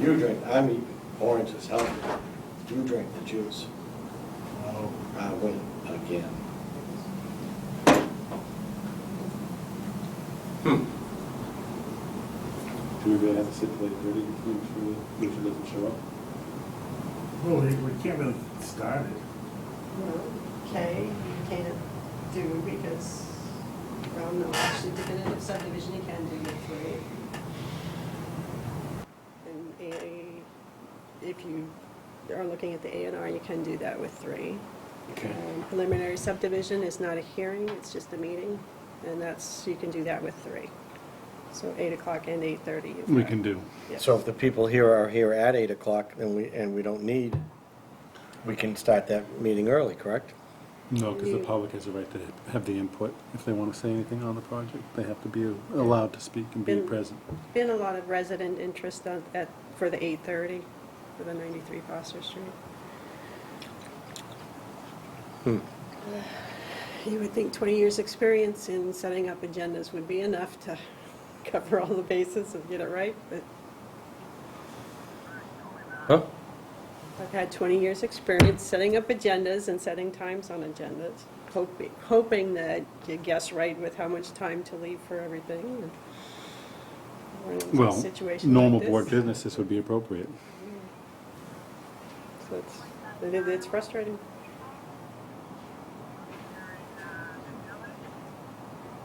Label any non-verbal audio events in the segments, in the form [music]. You drink, I'm eating oranges, healthy. You drink the juice. No, I win again. Do we really have to sit till eight thirty to make sure that Richard doesn't show up? Well, we we can't really start it. Okay, you can't do because, well, no, actually definitive subdivision, you can do your three. And A, if you are looking at the A and R, you can do that with three. Okay. Um, Preliminary subdivision is not a hearing, it's just a meeting, and that's, you can do that with three. So eight o'clock and eight thirty. you've We got- can do. yeah. So if the people here are here at eight o'clock and we, and we don't need, we can start that meeting early, correct? No, because the You- public has a right to have the input. If they want to say anything on the project, they have to be allowed to speak and be And- present. Been a lot of resident interest on, at, for the eight thirty, for the ninety-three Foster Street. Hmm. You would think twenty years' experience in setting up agendas would be enough to cover all the bases and get it right, but Huh? I've had twenty years' experience setting up agendas and setting times on agendas, hoping, hoping that you guess right with how much time to leave for everything. and we're in a Well, situation like normal this. board business, this would be [laughs] appropriate. So it's, it is- it's frustrating.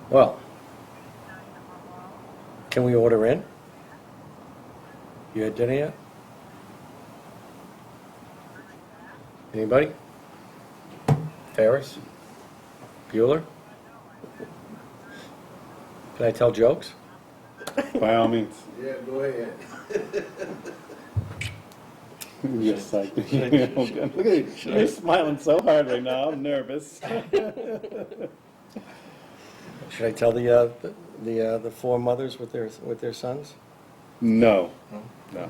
Well, can we order in? You had dinner yet? Anybody? Ferris? Bueller? Can I tell jokes? By all means. Yeah, [laughs] go ahead. Yes, [laughs] I. Look at you, you're smiling so hard right now, I'm nervous. Should I tell the, uh, the- the, uh, the four mothers with their, with their sons? No, no,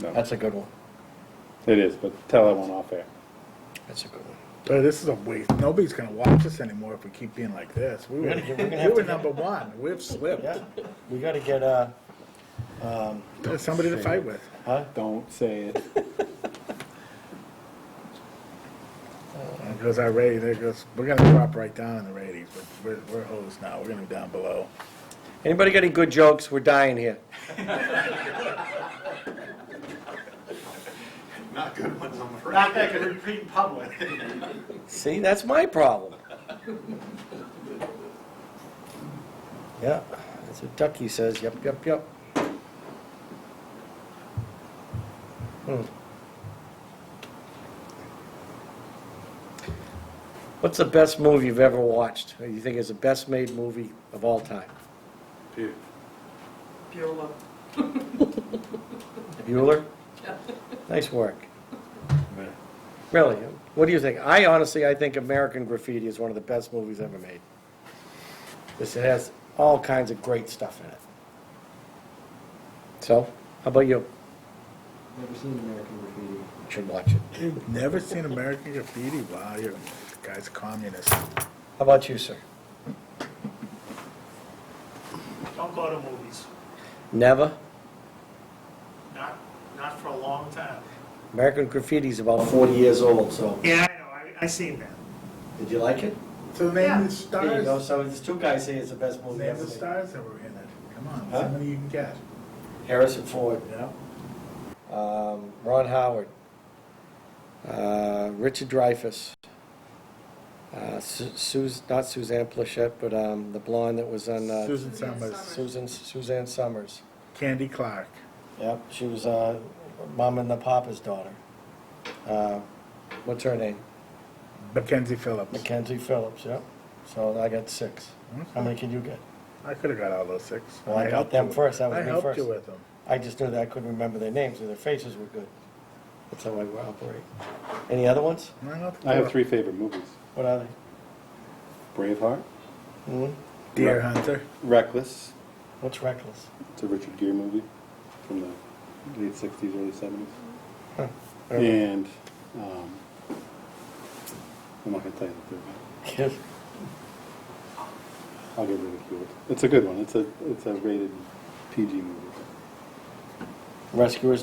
no. That's a good one. It is, but tell that one off air. That's a good one. But Uh, this is a waste. Nobody's gonna watch us anymore if we keep being like this. We were, We're gonna- we're gonna we have were to- number one. We've slipped. Yeah, we gotta get, uh, There's somebody to fight with. huh? Don't say it. There goes our rating. There goes, we're gonna drop right down in the ratings. We're, we're, we're hosed now. We're gonna be down below. Anybody got any good jokes? We're dying here. Not good ones, I'm afraid. Not that I could repeat in public. See, that's my problem. Yeah, that's what Ducky says, yep, yep, yep. Hmm. What's the best movie you've ever watched, or you think is the best-made movie of all time? Bueller. Bueller? Nice work. Really, what do you think? I honestly, I think American Graffiti is one of the best movies ever made. This it has all kinds of great stuff in it. So, how about you? Never seen American Graffiti. You Should watch it. How You've never seen American Graffiti? Wow, you're, the guy's a communist. about you, sir? Don't go to movies, Never. not, not for a long time. American Graffiti is about 40 years old, so. Yeah, I know, I, I seen that. Did you like it? So Yeah. name the There you go, stars. so there's two guys saying it's the best movie Name ever the made. stars that were in it. Come on, Huh? how many you can get? Harrison Ford. Yeah. um, Ron Howard, uh, Richard Dreyfuss, uh, Su- Sus- not Suzanne Plachette, but um, the blonde that was on uh, Susan Summers, Susan Suzanne Summers. Candy Clark. Yep, she was uh, Mom and the Papa's daughter. Uh, what's her name? Mackenzie Phillips. Mackenzie Phillips. Yep. So I got six. How many can you get? I could have got all those six. Well, I got helped them you. first. That was I me helped first. you with them. I just knew that I couldn't remember their names, and their faces were good. That's how I operate. Any other ones? I helped I you have with three favorite movies. What are they? Braveheart, hmm them. Deer Hunter. Reckless, What's reckless? [laughs] It's a Richard Gere movie from the late sixties, early seventies. Huh. And, um, I'm not gonna tell you the third one. Kid. I'll get ridiculed. It's a good one. It's a, it's a rated PG movie. Rescuers